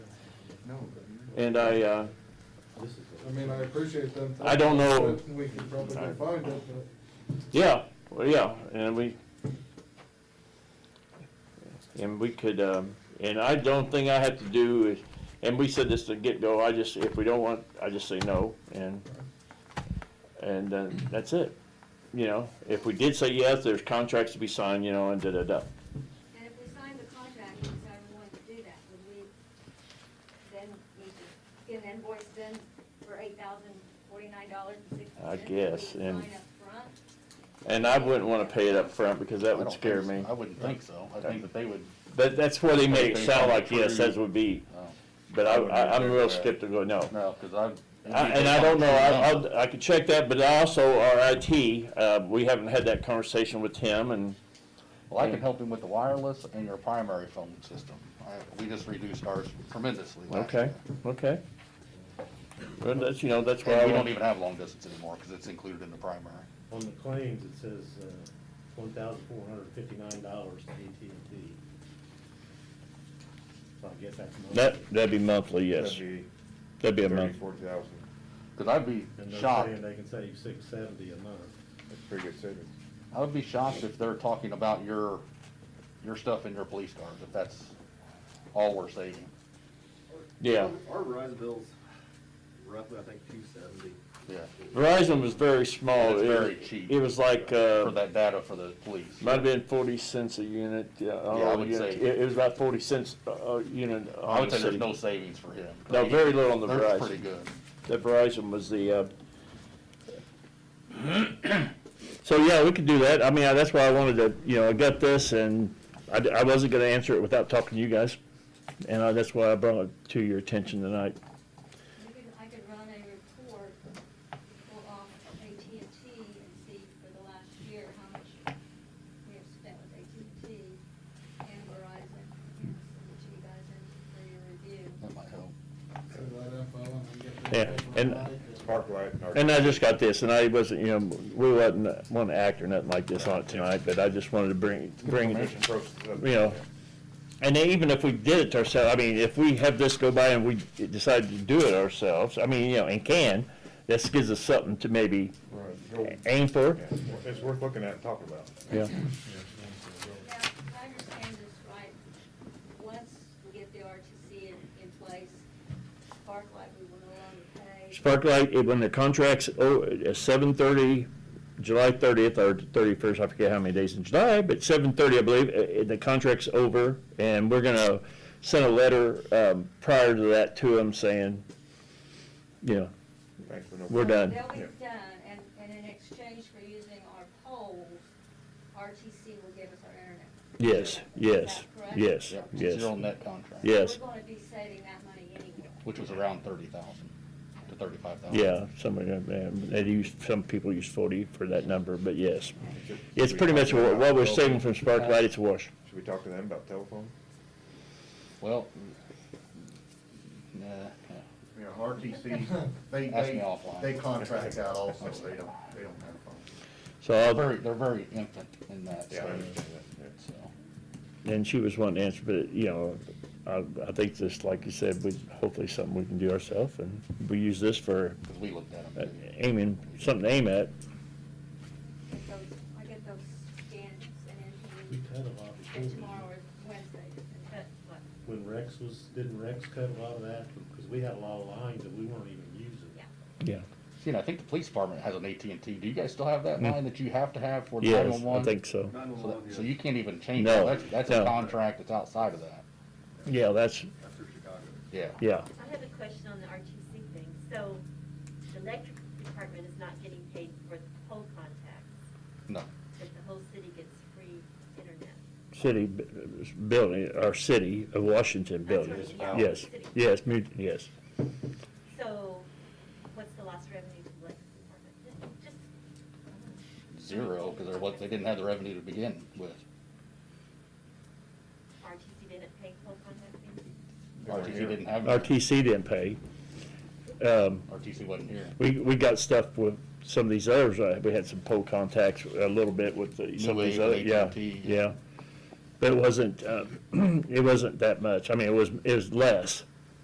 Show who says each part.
Speaker 1: No, but,
Speaker 2: And I, uh,
Speaker 1: I mean, I appreciate them.
Speaker 2: I don't know.
Speaker 1: but We can probably go find it, but
Speaker 2: yeah, well, yeah, and we, and we could, um, and I don't think I have to do is, and we said this to get-go, I just, if we don't want, I just say no, and, and then that's it. You know, if we did say yes, there's contracts to be signed, you know, and da-da-da.
Speaker 3: And if we signed the contract, and decided we wanted to do that, would we then need to get an invoice then for eight thousand forty-nine dollars and sixty cents?
Speaker 2: I guess, and-
Speaker 3: Sign up front?
Speaker 2: And I wouldn't wanna pay it up front because that
Speaker 4: I
Speaker 2: would
Speaker 4: don't
Speaker 2: scare
Speaker 4: think
Speaker 2: me.
Speaker 4: so. I wouldn't think so. I think that they would,
Speaker 2: But that's where they make it
Speaker 4: Everything
Speaker 2: sound like,
Speaker 4: coming
Speaker 2: yes,
Speaker 4: through.
Speaker 2: that would be,
Speaker 4: no,
Speaker 2: but I,
Speaker 4: Oh. I wouldn't
Speaker 2: I, I'm
Speaker 4: agree
Speaker 2: real
Speaker 4: with that.
Speaker 2: skeptical, no.
Speaker 4: no, because I've.
Speaker 2: I- And I don't know, I, I'll- I could check that, but also our IT, uh, we haven't had that conversation with him and,
Speaker 4: Well, I can help him with the wireless and your primary phone system. I- We just reduced ours tremendously. last
Speaker 2: okay,
Speaker 4: year.
Speaker 2: okay. Well, that's, you know, that's why I
Speaker 4: And we
Speaker 2: want-
Speaker 4: don't even have long distance anymore because it's included in the primary.
Speaker 5: On the claims, it says one thousand four hundred fifty-nine dollars to AT&T. So I guess that's. monthly.
Speaker 2: that, that'd be monthly, yes.
Speaker 6: That'd
Speaker 2: That'd be
Speaker 6: be
Speaker 2: a month.
Speaker 6: thirty-four thousand,
Speaker 4: Because I'd be
Speaker 5: And they're
Speaker 4: shocked,
Speaker 5: saying they can save six seventy a month.
Speaker 6: that's pretty good savings.
Speaker 4: I would be shocked if they're talking about your, your stuff in your police cars, if that's all we're saving.
Speaker 2: Yeah.
Speaker 7: Our Verizon bill's roughly, I think, two seventy.
Speaker 4: Yeah,
Speaker 2: Verizon was very small.
Speaker 4: It's
Speaker 2: It-
Speaker 4: very cheap.
Speaker 2: It was like,
Speaker 4: for
Speaker 2: uh,
Speaker 4: that data for the police.
Speaker 2: might have been forty cents a unit, yeah. I don't
Speaker 4: Yeah, I
Speaker 2: know,
Speaker 4: would
Speaker 2: unit.
Speaker 4: say-
Speaker 2: It, it was about forty cents a, a unit
Speaker 4: I
Speaker 2: on
Speaker 4: would
Speaker 2: the
Speaker 4: say there's
Speaker 2: city.
Speaker 4: no savings for him.
Speaker 2: No, very little on the
Speaker 4: They're pretty
Speaker 2: Verizon.
Speaker 4: good.
Speaker 2: That Verizon was the, uh, so yeah, we could do that. I mean, I- that's why I wanted to, you know, I got this and I, d- I wasn't gonna answer it without talking to you guys. And I, that's why I brought it to your attention tonight.
Speaker 3: You could, I could run a report for, um, AT&T and see for the last year how much we have spent with AT&T and Verizon, and send it to you guys in for your review.
Speaker 4: That might help.
Speaker 1: send that info and get
Speaker 2: Yeah,
Speaker 1: that.
Speaker 2: and-
Speaker 6: Park light and our.
Speaker 2: And I just got this, and I wasn't, you know, we wasn't, want to act or nothing like this on it tonight, but I just wanted to bring, bring it,
Speaker 6: Information process up.
Speaker 2: you know. And then even if we did it to ourselves, I mean, if we have this go by and we decide to do it ourselves, I mean, you know, and can, this gives us something to maybe
Speaker 6: Right, go-
Speaker 2: aim for,
Speaker 6: yeah, It's worth looking at and talking about.
Speaker 2: yeah.
Speaker 3: Now, if I understand this right, once we get the RTC in, in place, Sparklight, we will no longer pay.
Speaker 2: Sparklight, it- when the contract's, oh, at seven thirty, July thirtieth or thirty-first, I forget how many days in July, but seven thirty, I believe, uh, uh, the contract's over, and we're gonna send a letter, um, prior to that to them saying, you know,
Speaker 6: Thanks for no.
Speaker 2: We're done.
Speaker 3: They'll be
Speaker 6: Yeah.
Speaker 3: done, and, and in exchange for using our poles, RTC will give us our internet.
Speaker 2: yes, yes,
Speaker 3: Is that correct?
Speaker 2: yes,
Speaker 4: Yeah, Zero
Speaker 2: yes,
Speaker 4: net contract.
Speaker 2: yes,
Speaker 3: We're gonna be saving that money anyway.
Speaker 4: Which was around thirty thousand to thirty-five thousand.
Speaker 2: yeah, somebody, uh, they use, some people use forty for that number, but yes. It's pretty much what what we're saving from Sparklight, it's a wash.
Speaker 6: Should we talk to them about telephone?
Speaker 4: Well, nah,
Speaker 2: Uh,
Speaker 4: nah.
Speaker 8: You know, RTC, they,
Speaker 4: Ask me
Speaker 8: they,
Speaker 4: offline.
Speaker 8: they contract out also, they don't, they don't have phones.
Speaker 2: So
Speaker 4: They're
Speaker 2: I'll,
Speaker 4: very, they're very infant in that
Speaker 6: Yeah, I
Speaker 4: stage,
Speaker 6: understand that, yeah.
Speaker 4: so.
Speaker 2: And she was wanting to answer, but, you know, I, I think this, like you said, we, hopefully something we can do ourselves, and we use this for
Speaker 4: Because we looked at
Speaker 2: uh,
Speaker 4: them.
Speaker 2: aiming, something to aim at.
Speaker 3: Get those, I get those scans and in to
Speaker 5: We
Speaker 3: you,
Speaker 5: cut a lot before. we-
Speaker 3: and tomorrow or Wednesday. That's what-
Speaker 5: When Rex was, didn't Rex cut a lot of that? Because we had a lot of lines that we weren't even using.
Speaker 3: Yeah.
Speaker 2: Yeah.
Speaker 4: You know, I think the police department has an AT&T. Do you guys still have that line that you have to have for
Speaker 2: Mm.
Speaker 4: oh
Speaker 2: Yes, I
Speaker 4: nine-one-one?
Speaker 2: think so.
Speaker 4: So that- so you can't even change
Speaker 2: No,
Speaker 4: that. That's, that's
Speaker 2: no.
Speaker 4: a contract that's outside of that.
Speaker 2: Yeah, that's,
Speaker 7: After Chicago.
Speaker 4: Yeah.
Speaker 2: yeah.
Speaker 9: I have a question on the RTC thing. So the electric department is not getting paid for the pole contacts,
Speaker 4: No.
Speaker 9: but the whole city gets free internet.
Speaker 2: City b- building, our city of Washington building.
Speaker 9: That's right, yeah.
Speaker 2: Yes, yes, mu- yes.
Speaker 9: So what's the lost revenue to the electric department? Just- Just,
Speaker 4: Zero, because they're, what- they didn't have the revenue to begin with.
Speaker 9: RTC didn't pay pole contacts?
Speaker 4: RTC didn't have. that.
Speaker 2: RTC didn't pay. Um,
Speaker 4: RTC wasn't here.
Speaker 2: we, we got stuff with some of these others, uh, we had some pole contacts a little bit with the, some of
Speaker 4: New
Speaker 2: these
Speaker 4: Wave,
Speaker 2: other, yeah,
Speaker 4: AT&T, yeah.
Speaker 2: yeah. But it wasn't, uh, it wasn't that much, I mean, it was, it was less,